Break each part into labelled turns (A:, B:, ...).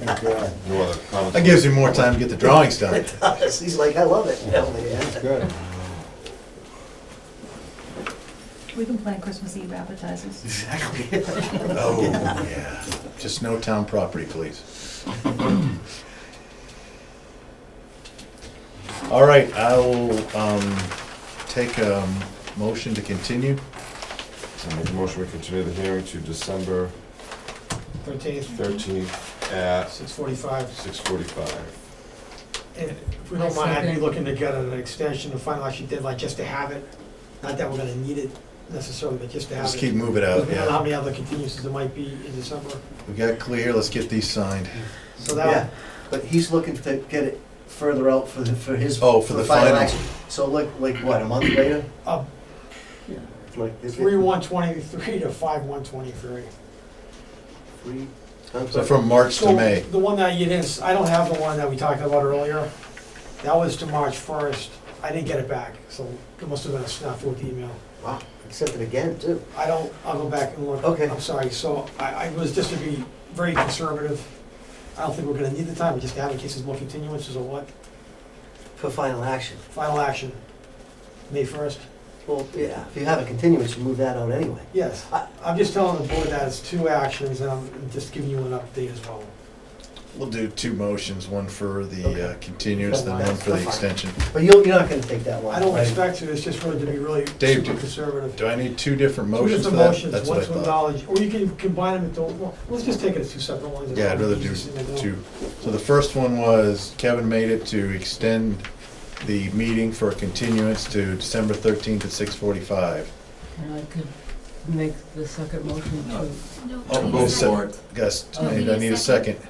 A: Thank God.
B: No other comments?
C: That gives you more time to get the drawings done.
A: It does. He's like, I love it. Hell, yeah.
B: Good.
D: We can plan Christmas Eve appetizers.
A: Exactly.
C: Oh, yeah. Just no town property, please. All right, I will, um, take a motion to continue.
B: I make a motion, we continue the hearing to December
E: Thirteenth,
B: thirteenth at
E: six forty-five.
B: six forty-five.
E: And if we don't mind, I'd be looking to get an extension, a final action deadline, just to have it. Not that we're gonna need it necessarily, but just to have it.
C: Just keep moving out,
E: Looking at how
C: yeah.
E: many other continuances there might be in December.
C: We got clear, let's get these signed.
E: So
A: Yeah,
E: that,
A: but he's looking to get it further out for the, for his.
C: Oh, for the final.
A: action. So like, like what, a month later?
E: uh,
A: Like, is it-
E: three one twenty-three to five one twenty-three.
A: Three? I'm
C: So
A: sorry.
C: from March to May.
E: The one that you didn't, I don't have the one that we talked about earlier. That was to March first. I didn't get it back, so it must have been a snafu with the email.
A: Wow, he sent it again too.
E: I don't, I'll go back and look.
A: Okay.
E: I'm sorry, so I, I was just to be very conservative. I don't think we're gonna need the time, we just have in case there's more continuances or what.
A: For final action.
E: Final action, May first?
A: Well, yeah, if you have a continuance, you move that out anyway.
E: Yes.
A: I-
E: I'm just telling the board that it's two actions, and I'm just giving you an update as well.
C: We'll do two motions, one for the uh,
A: Okay.
C: continuance, then one for the extension.
A: But you're, you're not gonna take that one.
E: I don't
A: right?
E: expect to, it's just really to be really
C: Dave,
E: super
C: do-
E: conservative.
C: Do I need two different
E: Two
C: motions for
E: different
C: that?
E: motions,
C: That's what I
E: one's to
C: thought.
E: acknowledge, or you can combine them into, well, let's just take it as two separate ones. It's
C: Yeah, I'd rather do
E: easier to
C: two. So the first one was Kevin made it to extend the meeting for a continuance to December thirteenth at six forty-five.
F: And I could make the second motion to,
C: Oh,
D: we
C: move
D: need a
C: forward.
D: second.
C: Gus,
F: Oh,
C: I
F: we
C: need I
D: need
C: need a second.
D: second.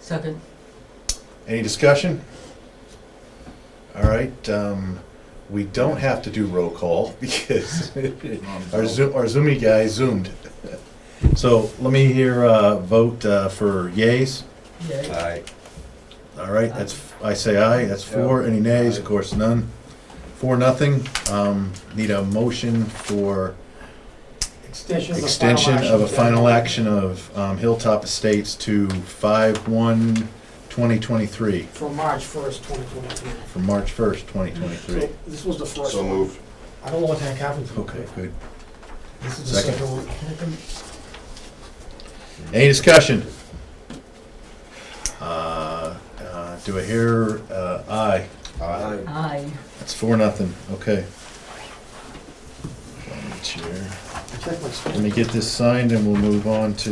F: second,
C: Any discussion? All right, um, we don't have to do roll call because our Zoom, our Zoomy guy zoomed. So let me hear, uh, vote, uh, for yays.
F: yeah.
B: Aye.
C: All right, that's, I say aye, that's four, any nays, of course, none. Four, nothing, um, need a motion for
E: Extension
C: extension of
E: of the final
C: a
E: action.
C: final action of, um, Hilltop Estates to five, one, twenty twenty-three,
E: From March first, twenty twenty-three.
C: from March first, twenty twenty-three.
E: So This was the first one.
B: So moved.
E: I don't know what the heck happened to it.
C: Okay, good.
E: This is the
C: Second.
E: second one.
F: Second,
C: Any discussion? Uh, uh, do I hear, uh, aye?
B: Aye.
F: Aye.
C: That's four, nothing, okay. Chair.
E: Check my
C: Let
E: screen.
C: me get this signed and we'll move on to,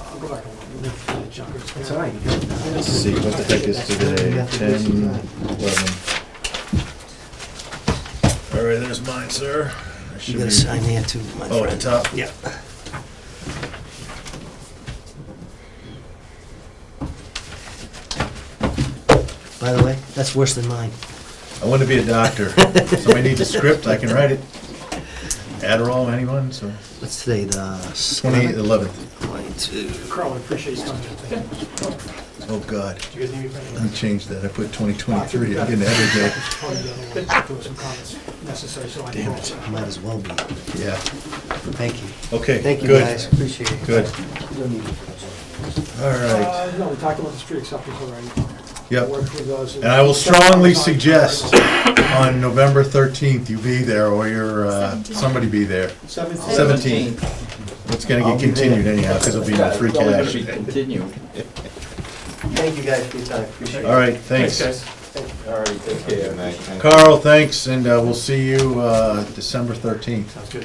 E: I'll go back and look. Look for the junk.
A: It's all right.
C: let's see, what the heck is today? Ten, eleven. All right, there's mine, sir. I should
A: You gotta
C: be-
A: sign there too, my friend.
C: Oh, at the top?
A: Yeah. By the way, that's worse than mine.
C: I want to be a doctor. Somebody needs a script, I can write it. Adderall, anyone, so?
A: Let's say the.
C: Twenty,
A: seventh,
C: eleventh.
A: Twenty-two.
E: Carl, I appreciate you coming in. Thank you.
C: Oh, God.
E: Do you guys need me for
C: I
E: anything?
C: changed that. I put twenty twenty-three. I didn't have it
E: It's part of the other one. There were some comments necessary, so I.
C: Damn
E: know.
C: it.
A: Might as well be.
C: yet. Yeah.
A: Thank you.
C: Okay,
A: Thank you, guys.
C: good,
A: Appreciate it.
C: good.
A: You don't need it.
C: All right.
E: Uh, no, we talked about the street acceptance already.
C: Yep.
E: Work through those.
C: And I will strongly suggest on November 13th, you be there or your, uh, somebody be there.
E: Seventeen.
C: 17th. It's gonna
A: I'll
C: get
A: be there.
C: continued anyhow, because it'll be no free cash.
G: Continue.
A: Thank you, guys, for your time. Appreciate it.
C: All right, thanks.
G: All right, take
B: Good
G: care.
B: night. Thank you.
C: Carl, thanks, and uh, we'll see you uh, December 13th.
E: Sounds good.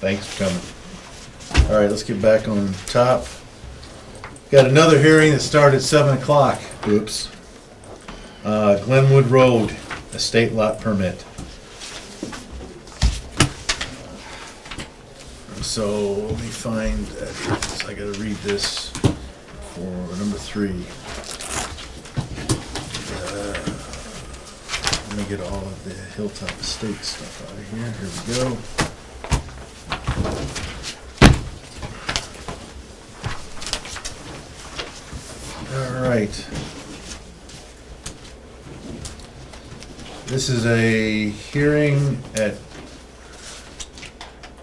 C: Thanks for coming. All right, let's get back on top. Got another hearing that started at 7 o'clock. Oops. Uh, Glenwood Road, estate lot permit. So let me find, uh, I gotta read this for number three. Uh, Let me get all of the Hilltop Estate stuff out of here. Here we go. All right. This is a hearing at,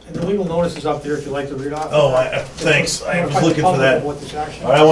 E: And the legal notice is up there if you'd like to read off.
C: Oh, I- I- thanks. I was looking for that.
E: What this action.
C: all right, I